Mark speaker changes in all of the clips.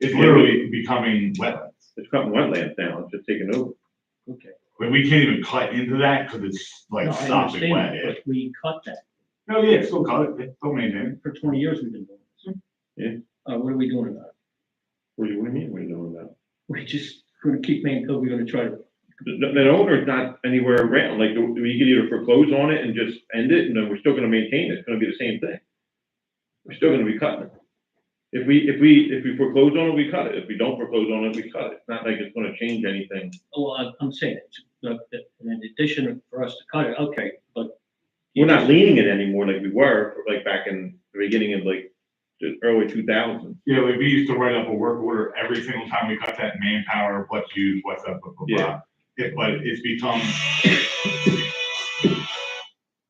Speaker 1: It's literally becoming wetlands.
Speaker 2: It's got wetlands now, it's just taken over.
Speaker 3: Okay.
Speaker 1: I mean, we can't even cut into that because it's
Speaker 3: No,
Speaker 1: like
Speaker 3: I
Speaker 1: stopping
Speaker 3: understand
Speaker 1: wet.
Speaker 3: that, But we cut that.
Speaker 1: No, yeah, still cut it, They don't maintain
Speaker 3: For twenty years we've been doing this. Uh, what are we doing about it?
Speaker 2: What do you, what do you mean, what are you doing now?
Speaker 3: We're just gonna keep making, code, we're gonna try to,
Speaker 2: The, the owner's not anywhere around, like, we could either foreclose on it and just end it, and then we're still gonna maintain it, it's gonna be the same thing. We're still gonna be cutting it. If we, if we, if we foreclose on it, we cut it, if we don't foreclose on it, we cut it, it's not like it's gonna change anything.
Speaker 3: oh, I'm, I'm saying, it's, that, that, in addition for us to cut it, okay, but.
Speaker 2: We're not leaning it anymore like we were, like, back in the beginning of like, the early two thousands.
Speaker 1: it. Yeah, like we used to write up a work order every single time we cut that manpower, what's used, what's up, blah, blah, blah.
Speaker 2: Yeah.
Speaker 1: It- But it's become,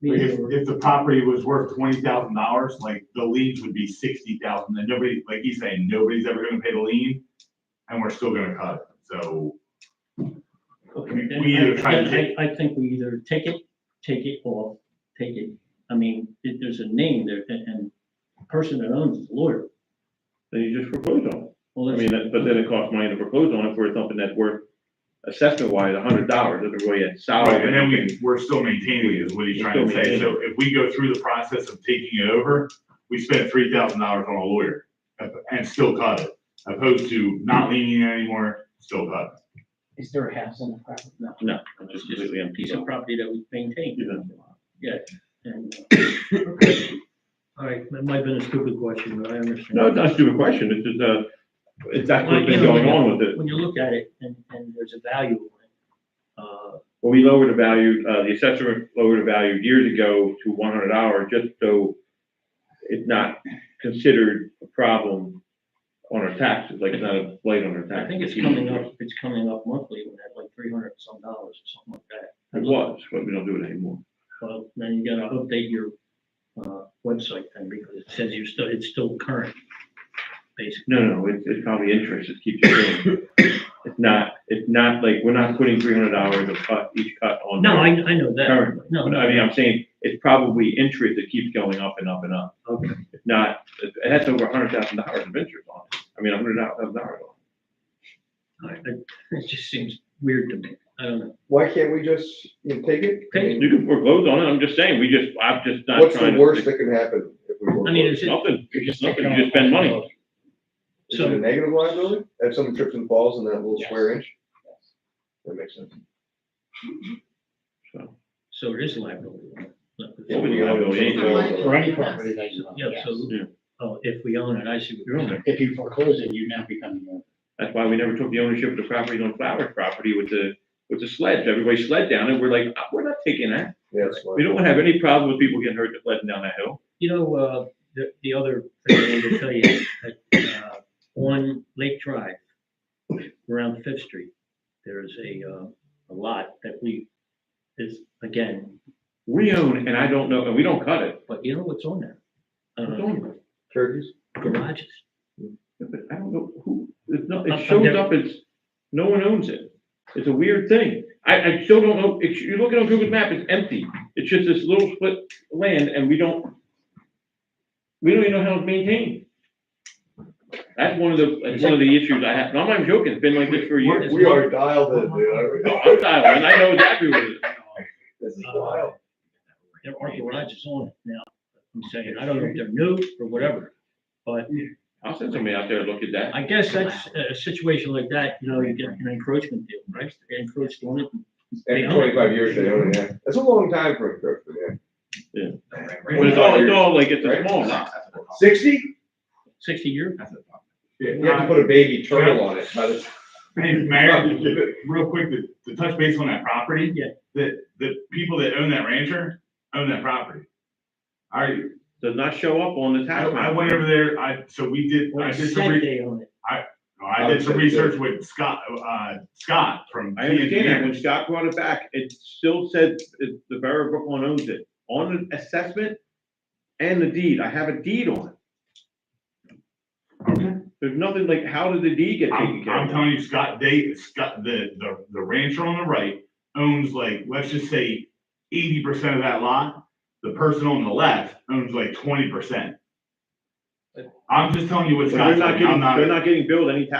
Speaker 3: me
Speaker 1: like,
Speaker 3: and
Speaker 1: if,
Speaker 3: you were-
Speaker 1: if the property was worth twenty thousand dollars, like the liens would be sixty thousand and nobody, like he's saying, nobody's ever gonna pay the lien. And we're still gonna cut it, so.
Speaker 3: Okay,
Speaker 1: we-
Speaker 3: then
Speaker 1: we
Speaker 3: I-
Speaker 1: either try to
Speaker 3: then I, I think we either take it, take it off, take it, I mean, there- there's a name there, and, and the person that owns is a lawyer.
Speaker 2: Then you just foreclose on it.
Speaker 3: Well,
Speaker 2: I
Speaker 3: that's-
Speaker 2: mean, that- but then it costs money to foreclose on it for something that's worth assessment wise, a hundred dollars, doesn't really add salary.
Speaker 1: Right, and then we, we're still maintaining it, is what he's
Speaker 2: We're
Speaker 1: trying to
Speaker 2: still
Speaker 1: say, so if we go through the process of taking it over, we spent three thousand dollars on a lawyer, and still cut it, opposed to not leaning anymore, still cut. it.
Speaker 4: Is there a house on the property?
Speaker 3: No,
Speaker 2: No, it's
Speaker 3: it's
Speaker 2: just
Speaker 3: just
Speaker 2: completely
Speaker 3: a
Speaker 2: empty.
Speaker 3: piece of property that we maintain. Yeah, and. All right, that might have been a stupid question, but I understand.
Speaker 2: No, it's not a stupid question, it's just, uh, it's that's what's been
Speaker 3: Well, you know,
Speaker 2: going on with it.
Speaker 3: When you look at it and, and there's a value, uh,
Speaker 2: Well, we lowered the value, uh, the assessor lowered the value years ago to one hundred dollars, just so it's not considered a problem on our taxes, like it's not a blight on our
Speaker 3: I
Speaker 2: taxes.
Speaker 3: think it's coming up, it's coming up monthly, we had like three hundred some dollars or something like that.
Speaker 2: It was, but we don't do it anymore.
Speaker 3: Well, then you gotta update your, uh, website then because it says you're still, it's still current, basically.
Speaker 2: No, no, it's, it's probably interest, it keeps going. It's not, it's not like, we're not putting three hundred dollars a cut, each cut on.
Speaker 3: No,
Speaker 2: there
Speaker 3: I, I know that.
Speaker 2: Currently,
Speaker 3: No,
Speaker 2: But I mean, I'm saying, it's probably interest that keeps going up and up and up.
Speaker 3: Okay.
Speaker 2: It's not, it it has over a hundred thousand dollars of interest on it, I mean, a hundred thousand dollars on
Speaker 3: I- I- It just seems weird to me. I don't know.
Speaker 5: Why can't we just, you know, take it?
Speaker 3: Take
Speaker 2: it. You can foreclose on it, I'm just saying, we just, I'm just not
Speaker 5: What's
Speaker 2: trying
Speaker 5: the
Speaker 2: to.
Speaker 5: worst that can happen? if we
Speaker 3: I mean,
Speaker 5: foreclose?
Speaker 3: it's,
Speaker 2: Nothing, it's just nothing, you just spend money.
Speaker 5: Is it a
Speaker 3: so,
Speaker 5: negative liability? If someone trips and falls in that little
Speaker 4: Yes.
Speaker 5: square inch? That makes sense.
Speaker 2: So,
Speaker 3: so it is liability. Look, it's-
Speaker 2: What would you have to do?
Speaker 4: For any property that you own,
Speaker 3: Yeah,
Speaker 4: yes.
Speaker 3: so,
Speaker 2: Yeah.
Speaker 3: oh, if we own it, I see what you're saying.
Speaker 4: If you foreclose it, you now become the owner.
Speaker 2: That's why we never took the ownership of the property on Flowers property with the, with the sledge, everybody sled down, and we're like, "Ah, we're not taking that.
Speaker 5: Yeah, that's why.
Speaker 2: We don't want to have any problem with people getting hurt that sledding down that hill.
Speaker 3: You know, uh, the, the other thing I wanted to tell you, is that, uh, on Lake Drive, around Fifth Street, there is a, uh, a lot that we, is, again,
Speaker 2: We own, and I don't know, and we don't cut it.
Speaker 3: but you know what's on there?
Speaker 2: It's
Speaker 3: Uh,
Speaker 2: on,
Speaker 5: Turkeys?
Speaker 3: garages.
Speaker 2: but I don't know who, it's not,
Speaker 3: I'm- I'm
Speaker 2: it shows
Speaker 3: never-
Speaker 2: up as, no one owns it. It's a weird thing. I, I still don't know, if you look at on Google map, it's empty. It's just this little split land and we don't, we don't even know how it's maintained. That's one of the, that's one of the issues I have. and I'm not even joking. It's been like this for years.
Speaker 5: We are dialed in, dude.
Speaker 2: No, I'm
Speaker 5: I-
Speaker 2: dialed in. I know exactly what it is.
Speaker 5: This is
Speaker 3: Uh,
Speaker 5: wild.
Speaker 3: There are garages on it now. I'm saying, I don't know if they're new or whatever, but
Speaker 2: I'll send somebody out there to look at that.
Speaker 3: I guess that's a a situation like that, you know, you get an encroachment deal, right? They encroached on it.
Speaker 5: After
Speaker 3: own it.
Speaker 5: twenty-five years, they own it, yeah. That's a long time for a turkey, man.
Speaker 2: But it's all, it's all like, it's a small lot.
Speaker 5: Sixty?
Speaker 3: Sixty years?
Speaker 5: You have to put a baby turtle on it. by the
Speaker 1: Hey,
Speaker 5: time
Speaker 1: Mayor,
Speaker 5: you do it.
Speaker 1: real quick, to, to touch base on that property.
Speaker 3: Yeah.
Speaker 1: The, the people that own that rancher own that property. I,
Speaker 2: does not show up on the
Speaker 1: I
Speaker 2: tax
Speaker 1: I
Speaker 2: map.
Speaker 1: went over there, I, so we did, I
Speaker 3: Or
Speaker 1: did
Speaker 3: said
Speaker 1: some, re-
Speaker 3: they own it.
Speaker 1: I did some research with Scott, uh, Scott from.
Speaker 2: I
Speaker 1: T&T.
Speaker 2: understand that, when Scott brought it back, it still said it- the borough of Brooklyn owns it, on the assessment and the deed, I have a deed on it.
Speaker 1: Okay.
Speaker 2: There's nothing like, how did the deed get taken
Speaker 1: I'm,
Speaker 2: care
Speaker 1: I'm
Speaker 2: of?
Speaker 1: telling you, Scott Day, Scott, the, the, the rancher on the right owns like, let's just say eighty percent of that lot. The person on the left owns like twenty percent. I'm just telling you what's
Speaker 2: They're
Speaker 1: Scott's,
Speaker 2: not
Speaker 1: like. I'm
Speaker 2: getting,
Speaker 1: not.
Speaker 2: they're not getting billed any tax.